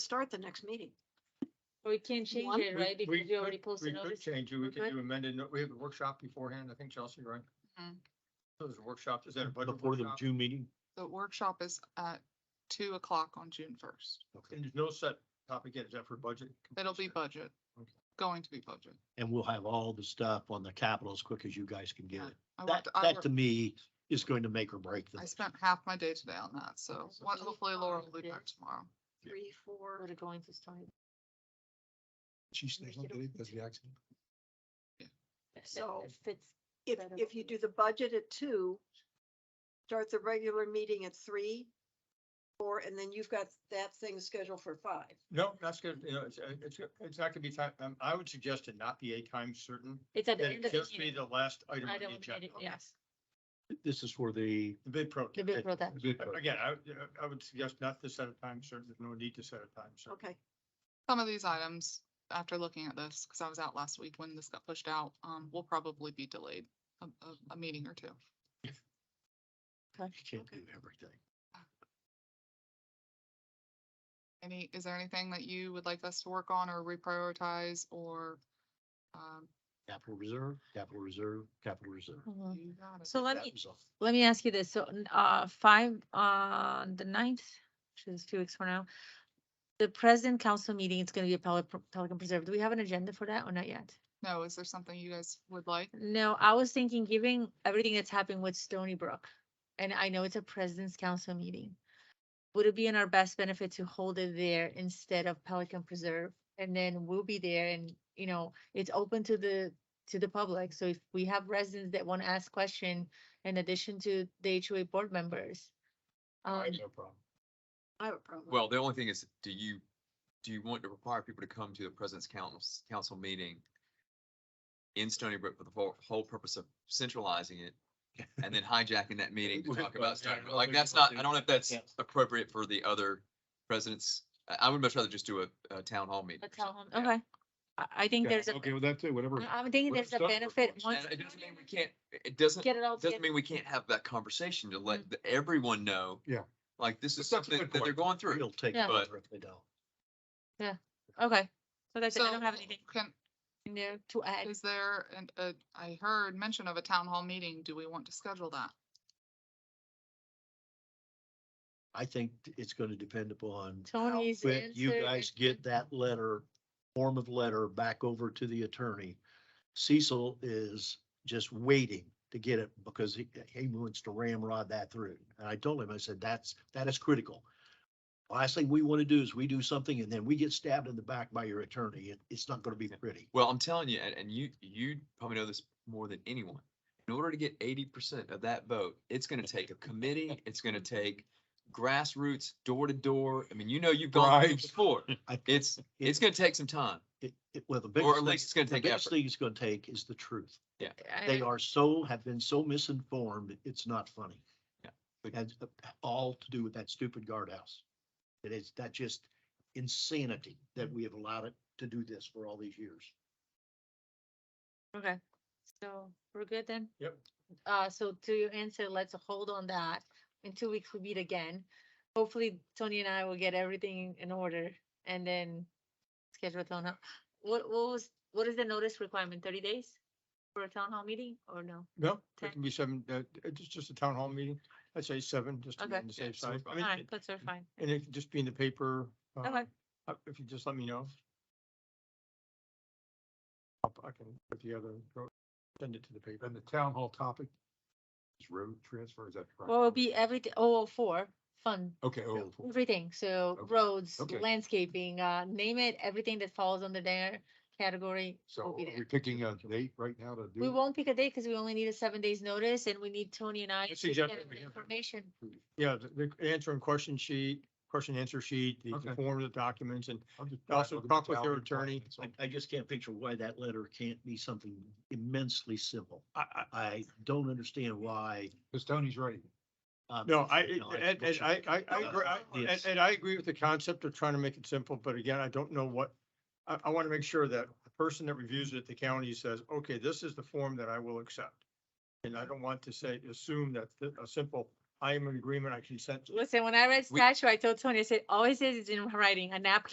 start the next meeting. We can't change One. it, right? We- we Because you already could- posted We could notice. change it, we could Okay. do amended, no- we have a workshop beforehand, I think Chelsea, right? Mm-hmm. Mhm. So there's a workshop, is that a budget Before the workshop? June meeting? The workshop is at two o'clock on June first. And there's no set topic yet, is that for budget? It'll be budget, Okay. going to be budget. And we'll have all the stuff on the capital as quick as you guys can get it. I That, worked, I that to worked, me is going to make or break I this. spent half my day today on that, so so what- we hopefully Laura will are be back good. tomorrow. Three, four, We're going to start. She's thinking, Okey-dokey. that's the accident. So- It fits. if, Better if you than- do the budget at two, start the regular meeting at three, four, and then you've got that thing scheduled for five. No, that's good, you know, it's, uh, it's, it's not gonna be time, um, I would suggest it not be a time certain, It's at the that end it of the just be meeting. the last item I on the don't, agenda. yes, This is for the. The bid the protest. bid protest. Again, I, I would suggest not to set a time certain, there's no need to set a time certain. Okay, Some of these items, after looking at this, because I was out last week when this got pushed out, um, will probably be delayed a, a, a meeting or two. You can't do everything. Any, is there anything that you would like us to work on or reprioritize or? Um, Capital reserve, capital reserve, capital reserve. Mhm. you got it. So let That me, was all. let me ask you this. So, n- uh, five, on the ninth, which is two weeks from now. The president council meeting, it's gonna be at Pelican, Pelican Preserve. Do we have an agenda for that or not yet? No, is there something you guys would like? No, I was thinking, given everything that's happened with Stony Brook, and I know it's a president's council meeting. Would it be in our best benefit to hold it there instead of Pelican Preserve? And then we'll be there and, you know, it's open to the, to the public. So if we have residents that want to ask question in addition to the HOA board members. Um, No problem. I have a problem. Well, the only thing is, do you, do you want to require people to come to the president's council, council meeting in Stony Brook for the whole, whole purpose of centralizing it and then hijacking that meeting to Well, talk about Stony yeah, Brook? Like, well, that's we don't not, I don't know if that's Yeah. appropriate for the other presidents. I, I would much rather just do a, a town hall meeting. a or something. town hall- okay. I, I think there's a, Mm, Okay, with that too, whatever. I- I'm thinking Well, there's a Stony Brook benefit. works. once And it doesn't mean we can't, it doesn't, Get it all together. doesn't mean we can't have that conversation to let the- everyone know. Yeah. Like, this is That's a something good that they're point. going through. We'll take Yeah. it if they don't. Okay, so that's, it. I So don't have anything can, in there to add. is there, an a I heard mention of a town hall meeting. Do we want to schedule that? I think it's going to depend upon Tony's when you answer guys is get that letter, form of letter back over to the attorney. Cecil is just waiting to get it because he, he wants to ramrod that through. And I told him, I said, that's, that is critical. Last thing we want to do is we do something and then we get stabbed in the back by your attorney. It, it's not going to be pretty. Well, I'm telling you, and, and you, you probably know this more than anyone. In order to get eighty percent of that vote, it's gonna take a committee, it's gonna take grassroots, door to door. I mean, you know, you've gone through Bribes. before. I- It's, it's gonna take some time. It, it, well, the Or biggest. at thing- least it's gonna the take biggest effort. Thing it's going to take is the truth. I They don't- are so, have been so misinformed, it's not funny. Yeah. Has uh, all to do with that stupid guardhouse. It is, that just insanity that we have allowed it to do this for all these years. Okay, so we're good then? Yep. Uh, so to your answer, let's hold on that. In two weeks, we meet again. Hopefully Tony and I will get everything in order and then schedule a town hall. What, what was, what is the notice requirement? Thirty days for a town hall meeting or no? No, Okay. it can be seven, uh, it's just a town hall meeting, I'd say seven, just to be Okay. on the safe Yeah, so side. I mean, Alright, that's all fine. And it could just be in the paper. uh, Okay. uh, If you just let me know. I'll- I can put the other, send it to the paper. And the town hall topic is road transfer, is that correct? Well, it'll be everything, oh, four, fun, Okay, oh, everything. So Okay, roads, okay. landscaping, uh, name it, everything that falls under their category will so be there. we're picking a date right now to do. We it? won't pick a date because we only need a seven days notice and we need Tony and I That's to exactly get what we have. information. Yeah, the the answer and question sheet, question answer sheet, the Okay. the form of the documents and I'm just trying to also look at talk the with your town attorney. documents. I, I just can't picture why that letter can't be something immensely simple. I, I, I don't understand why. Because Tony's ready. um, no, I, you know, it- and, and wish I, I, I, uh, agree- I- and, yes. and I agree with the concept of trying to make it simple, but again, I don't know what. I, I want to make sure that the person that reviews it at the county says, okay, this is the form that I will accept. And I don't want to say, assume that th- a simple, I am in agreement, I consent to Listen, when I read We- statute, I told Tony, I said, always says it's in writing, a napkin